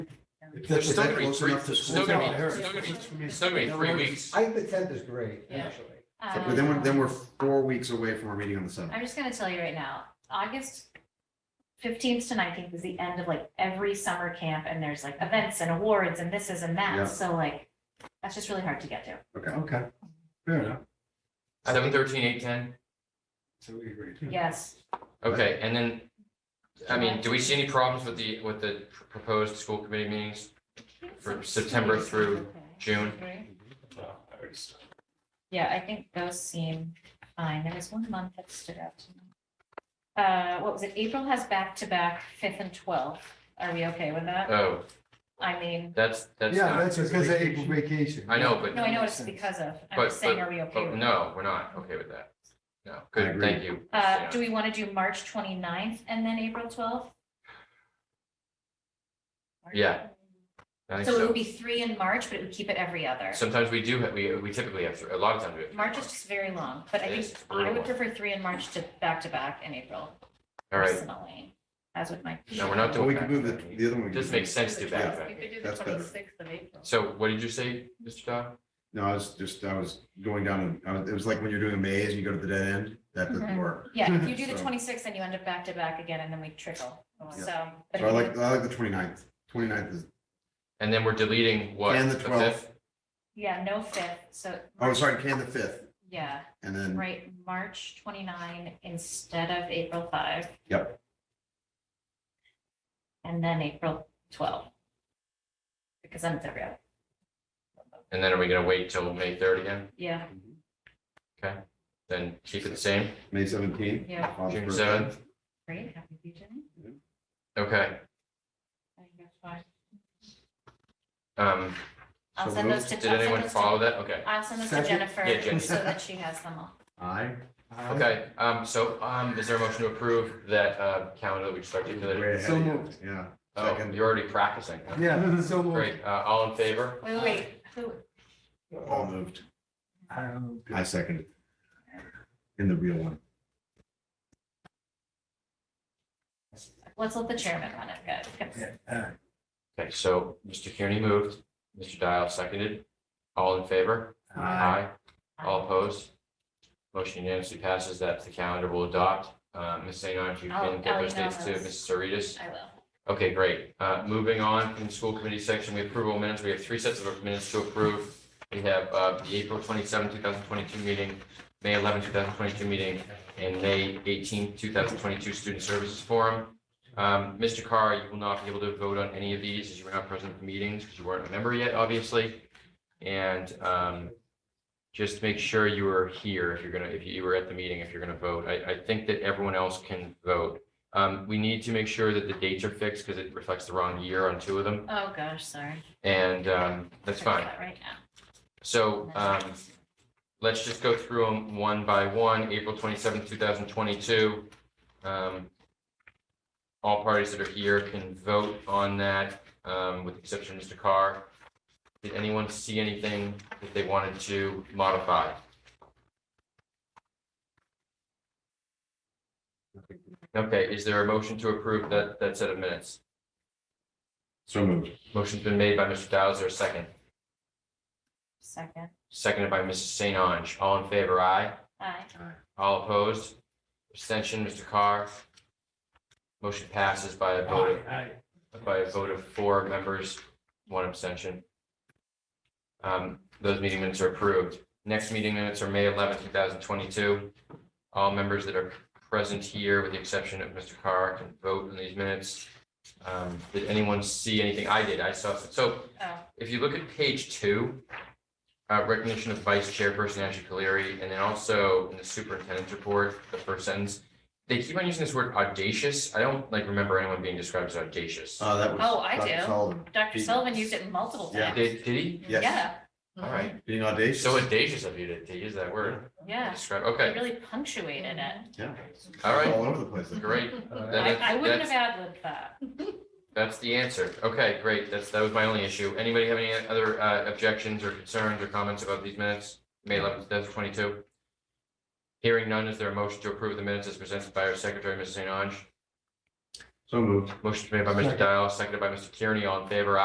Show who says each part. Speaker 1: If
Speaker 2: There's
Speaker 1: that's-
Speaker 2: still
Speaker 1: if
Speaker 2: gonna be
Speaker 1: that's close
Speaker 2: three-
Speaker 1: enough to
Speaker 2: there's
Speaker 1: school.
Speaker 2: still gonna
Speaker 1: Yeah,
Speaker 2: be-
Speaker 1: there
Speaker 2: there's still gonna be-
Speaker 1: is.
Speaker 2: there's still gonna be three weeks.
Speaker 3: I think the tenth is great,
Speaker 4: Yeah.
Speaker 3: actually.
Speaker 1: So, But then
Speaker 4: Uh,
Speaker 1: we're, then we're four weeks away from our meeting on the seventh.
Speaker 4: I'm just gonna tell you right now, August fifteenth to nineteenth is the end of like every summer camp and there's like events and awards and this is and
Speaker 1: Yeah.
Speaker 4: that. So like, that's just really hard to get to.
Speaker 1: Okay,
Speaker 3: Okay,
Speaker 1: fair enough.
Speaker 2: Seven, thirteen, eight, ten,
Speaker 3: so we agreed.
Speaker 1: Hmm.
Speaker 4: Yes.
Speaker 2: okay, and then, I mean, do we see any problems with the, with the pr- proposed school committee meetings, For September through- June?
Speaker 4: Yeah, I think those seem fine. There was one month that stood out to me. Uh, what was it? April has back to back fifth and twelfth. Are we okay with that?
Speaker 2: Oh,
Speaker 4: I mean,
Speaker 2: that's, that's
Speaker 3: Yeah,
Speaker 2: not,
Speaker 3: that's because of April vacation.
Speaker 2: I know, but,
Speaker 4: no, I know it's because of, I'm
Speaker 2: But-
Speaker 4: just saying, are we okay
Speaker 2: but
Speaker 4: with that?
Speaker 2: no, we're not okay with that. No,
Speaker 1: I
Speaker 2: good,
Speaker 1: agree.
Speaker 2: thank you.
Speaker 4: Uh, do we want to do March 29th and then April twelfth?
Speaker 2: Yeah. I think
Speaker 4: So it
Speaker 2: so.
Speaker 4: would be three in March, but it would keep it every other.
Speaker 2: Sometimes we do, ha- we, we typically have, th- a lot of times we have.
Speaker 4: March is just very long, but I
Speaker 2: It
Speaker 4: think
Speaker 2: is
Speaker 4: I
Speaker 2: brutal.
Speaker 4: would prefer three in March to back to back in April
Speaker 2: All right,
Speaker 4: personally, as with my.
Speaker 2: no, we're not
Speaker 1: Well, we
Speaker 2: doing
Speaker 1: could
Speaker 2: that.
Speaker 1: move the, the other one. we
Speaker 2: This
Speaker 1: could-
Speaker 2: makes sense to do back
Speaker 4: You
Speaker 2: then.
Speaker 4: could do the
Speaker 1: That's better.
Speaker 4: 26th of April.
Speaker 2: So what did you say, Mr. Dodd?
Speaker 1: No, I was just, I was going down, and I was- it was like when you're doing a maze and you go to the dead end, that doesn't
Speaker 4: Mhm.
Speaker 1: work.
Speaker 4: Yeah, if you do the
Speaker 1: So-
Speaker 4: twenty-sixth, then you end up back to back again, and then we trickle, so. but
Speaker 1: So I
Speaker 4: if
Speaker 1: like,
Speaker 4: you-
Speaker 1: I like the 29th. 29th is,
Speaker 2: And then we're deleting what?
Speaker 1: And the
Speaker 2: fifth?
Speaker 1: 12th.
Speaker 4: Yeah, no fifth, so.
Speaker 1: oh, sorry, can the fifth,
Speaker 4: Yeah.
Speaker 1: and then,
Speaker 4: Right, March twenty-nine instead of April five.
Speaker 1: Yep.
Speaker 4: And then April twelve. Because then it's every other,
Speaker 2: And then are we gonna wait till May third again?
Speaker 4: yeah,
Speaker 2: Then keep it the same?
Speaker 1: May seventeenth.
Speaker 4: yeah,
Speaker 2: June seventh.
Speaker 4: great, happy Legion.
Speaker 2: Okay,
Speaker 4: I think that's fine.
Speaker 2: um,
Speaker 4: I'll
Speaker 1: So
Speaker 4: send those to.
Speaker 2: did
Speaker 4: I'll send
Speaker 2: anyone
Speaker 4: those to-
Speaker 2: follow that? Okay,
Speaker 4: I'll send those to
Speaker 3: Second?
Speaker 2: Yeah,
Speaker 4: Jennifer
Speaker 2: Jen.
Speaker 4: so that she has them all.
Speaker 1: Aye.
Speaker 2: okay, um, so, um, is there a motion to approve that, uh, calendar that we just articulated?
Speaker 1: Way ahead
Speaker 3: So
Speaker 1: of you.
Speaker 3: moved.
Speaker 1: Yeah.
Speaker 2: Oh,
Speaker 1: Second.
Speaker 2: you're already practicing.
Speaker 3: Yeah, so moved.
Speaker 2: Great, uh, all in favor?
Speaker 4: Wait, wait, wait, who,
Speaker 1: All moved.
Speaker 3: Um,
Speaker 1: I second. In the real one.
Speaker 4: let's let the chairman run it, good.
Speaker 3: yeah, all right.
Speaker 2: Okay, so Mr. Kearney moved, Mr. Dial seconded, all in favor? Aye. All opposed? Motion unanimously passes, that's the calendar we'll adopt. Uh, Ms. St. if you
Speaker 4: I'll-
Speaker 2: can get
Speaker 4: I'll
Speaker 2: those
Speaker 4: email
Speaker 2: dates to
Speaker 4: those.
Speaker 2: Mrs. Saritas.
Speaker 4: I will.
Speaker 2: Okay, great. Uh, moving on from the school committee section, we approval of minutes. We have three sets of minutes to approve. We have, uh, the April twenty seventh, two thousand twenty-two meeting, May eleventh, two thousand twenty-two meeting, and May eighteenth, two thousand twenty-two Student Services Forum. Um, Mr. Carr, you will not be able to vote on any of these as you were not present at meetings because you weren't a member yet, obviously. And, um, just make sure you are here if you're gonna, if you were at the meeting, if you're gonna vote. I, I think that everyone else can vote. Um, we need to make sure that the dates are fixed because it reflects the wrong year on two of them,
Speaker 4: Oh, gosh, sorry.
Speaker 2: and, um, that's
Speaker 4: Fix
Speaker 2: fine.
Speaker 4: that Right now.
Speaker 2: So, um, let's just go through them one by one, April twenty-seventh, two thousand twenty-two. Um, all parties that are here can vote on that, um, with the exception of Mr. Carr. Did anyone see anything that they wanted to modify? Okay, is there a motion to approve that, that set of minutes?
Speaker 1: So moved.
Speaker 2: Motion's been made by Mr. Dow, is there a second?
Speaker 4: Second,
Speaker 2: Seconded by Mrs. St. Ange, all in favor, aye?
Speaker 4: aye.
Speaker 2: All opposed? Abstention, Mr. Carr? Motion passes by a vote
Speaker 3: Aye.
Speaker 2: of, by a vote of four members, one abstention. Um, those meeting minutes are approved. Next meeting minutes are May eleventh, two thousand twenty-two. All members that are present here, with the exception of Mr. Carr, can vote on these minutes. Um, did anyone see anything? I did. I saw, so
Speaker 4: Oh,
Speaker 2: if you look at page two, uh, recognition of vice chairperson Ashley Caleri, and then also in the superintendent's report, the first sentence, they keep on using this word audacious. I don't like remember anyone being described as audacious.
Speaker 1: Uh, that was.
Speaker 4: Oh, I
Speaker 1: Dr.
Speaker 4: do.
Speaker 1: Sullivan.
Speaker 4: Dr.
Speaker 1: He-
Speaker 4: Sullivan used it multiple
Speaker 1: Yeah.
Speaker 4: times.
Speaker 2: Did, did he?
Speaker 1: Yes.
Speaker 4: Yeah,
Speaker 2: All right.
Speaker 1: Being audacious.
Speaker 2: So audacious of you to, to use that word. to
Speaker 4: yeah.
Speaker 2: Describe,
Speaker 4: He
Speaker 2: okay,
Speaker 4: really punctuated it.
Speaker 1: Yeah.
Speaker 2: all right,
Speaker 1: All over the place.
Speaker 2: great.
Speaker 4: I,
Speaker 2: That-
Speaker 4: I wouldn't
Speaker 2: that's-
Speaker 4: have ad-libbed that.
Speaker 2: That's the answer. Okay, great. That's, that was my only issue. Anybody have any other uh, objections or concerns or comments about these minutes? May eleventh, two thousand twenty-two. Hearing none, is there a motion to approve the minutes as presented by our secretary, Mrs. St. Ange?
Speaker 1: So moved.
Speaker 2: Motion made by Mr.
Speaker 3: Second.
Speaker 2: Dial, seconded by Mr. Kearney. All in favor?